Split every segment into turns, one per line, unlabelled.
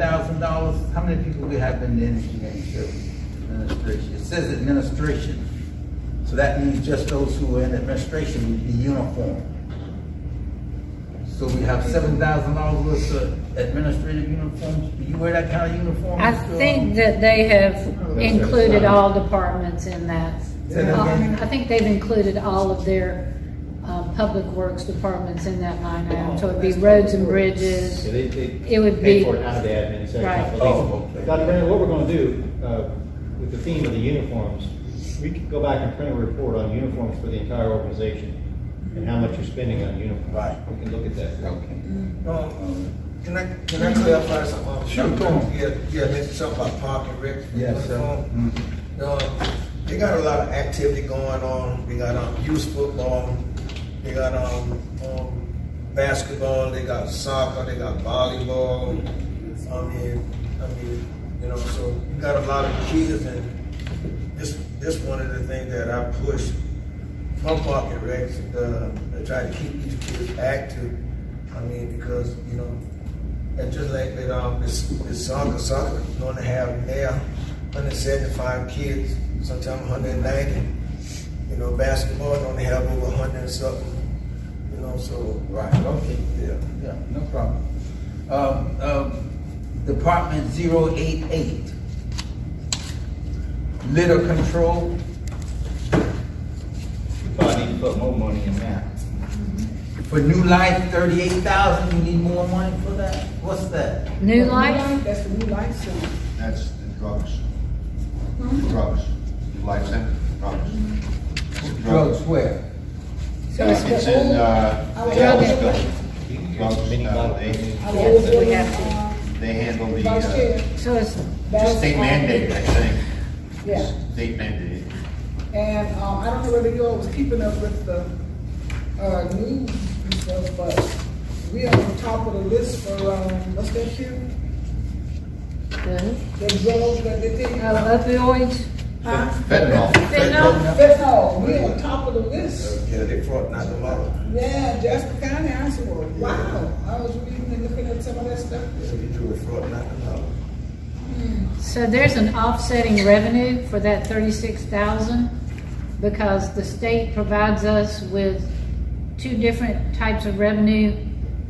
thousand dollars, how many people we have in the energy and service administration? It says administration, so that means just those who are in administration would be uniform. So we have seven thousand dollars worth of administrative uniforms, do you wear that kind of uniform? uh?
I
Mr.
think that they have included all departments in that.
Say that again?
Uh, I think they've included all of their, um, public works departments in that line item, so it'd be roads and bridges.
Yeah, they, they.
It would
Pay
be-
for it out of the admin, so it's not
Right.
believable.
Oh, okay.
Dr. Brandon, what we're gonna do, uh, with the theme of the uniforms, we could go back and print a report on uniforms for the entire organization and how much you're spending on uniforms.
Right.
We can look at that.
Okay.
Um, Can I, can I clarify something? off the
Sure,
top?
go on.
Yeah, yeah, mentioned something about parking, Rick.
Yes, sir. Mm-hmm.
Um, They got a lot of activity going on, they got, um, youth football, they got, um, um, basketball, they got soccer, they got volleyball. I mean, I mean, you know, so you got a lot of kids and this, this one of the things that I push from Parking Rex, uh, to try to keep these kids active. I mean, because, you know, and just like that, um, this, this soccer, soccer, you gonna have now hundred seventy-five kids, sometimes hundred ninety. You know, basketball, don't have over hundred and something, you know, so.
Right, okay.
Yeah.
Yeah, no problem. Um, um, Department zero eight eight. Litter control,
Probably need to put more money in that.
for New Life, thirty-eight thousand, you need more money for that? What's that?
New life,
That's the new life center.
That's the drugs. Drugs. Your life sentence, drugs.
Drugs where?
So
Uh, It's in, uh,
I
the
was
Ellis
looking-
building.
You can
Drugs,
use mini
uh,
bottle-
they-
I
Yes,
was
we
doing,
have to.
uh,
They handle the,
vice chair.
uh,
so it's,
That's,
state
um,
mandate, I think.
Yeah,
State mandate.
and, um, I don't know whether you all was keeping up with the, uh, news and stuff, but we are on top of the list for, um, what's that here?
the
The drugs that they take.
uh, opioids,
Huh?
Fentanyl.
fentanyl,
Fentanyl, we on top of the list.
Yeah, they fought not tomorrow.
Yeah, Jasper County, I saw, wow, I was reading and looking at some of that stuff.
Yeah, you do it fraud not tomorrow.
So there's an offsetting revenue for that thirty-six thousand because the state provides us with two different types of revenue,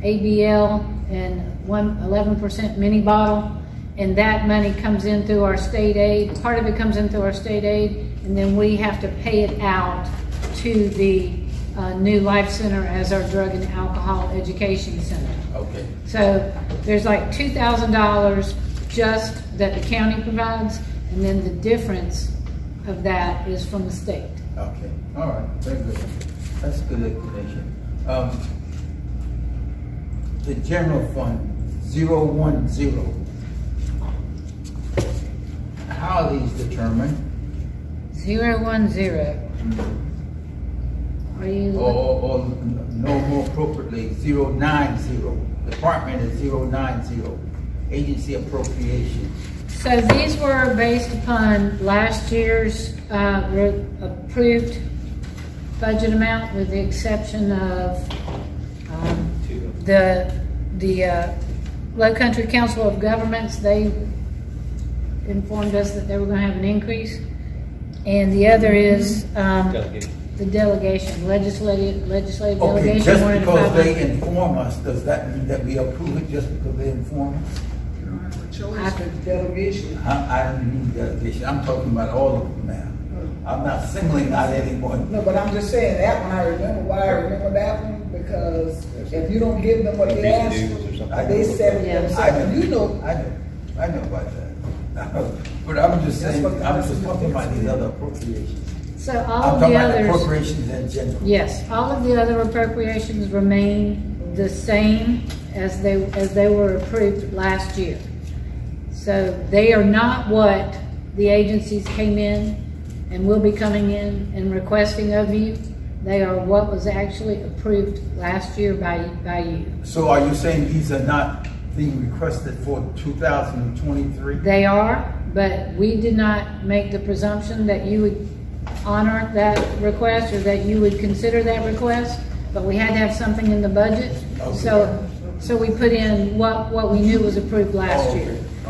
ABL and one, eleven percent mini bottle. And that money comes in through our state aid, part of it comes in through our state aid, and then we have to pay it out to the, uh, New Life Center as our drug and alcohol education center.
Okay.
So there's like two thousand dollars just that the county provides, and then the difference of that is from the state.
Okay, all right, very good. That's good explanation. Um, the general fund, zero one zero. How are these determined?
Zero one zero. Are you?
Or, or, or no more appropriately, zero nine zero. Department is zero nine zero. Agency appropriation.
So these were based upon last year's uh, re- approved budget amount with the exception of um,
Two of
the, the uh, Low Country Council of Governments, they informed us that they were going to have an increase. And the other is um,
Delegate.
the delegation, legislative, legislative
Okay,
delegation.
just
wanted to
because
five
they
hundred.
inform us, does that mean that we approve it just because they inform us?
You don't have a choice with delegation.
I, I don't mean delegation, I'm talking about all of them now. I'm not singling out anyone.
No, but I'm just saying, that one, I remember why I remember that one, because if you don't give them what they ask
or
for,
something.
they set it
I know,
themselves, you know.
I know, I know about that. But I'm just
That's
saying,
what-
I'm just talking about these other appropriations.
So
I'm
all of
talking
the
about
others.
appropriations in general.
Yes, all of the other appropriations remain the same as they, as they were approved last year. So they are not what the agencies came in and will be coming in and requesting of you. They are what was actually approved last year by, by you.
So are you saying these are not being requested for two thousand and twenty-three?
They are, but we did not make the presumption that you would honor that request or that you would consider that request, but we had to have something in the budget. So So we put in what, what we knew was approved last
Oh,
year.
okay.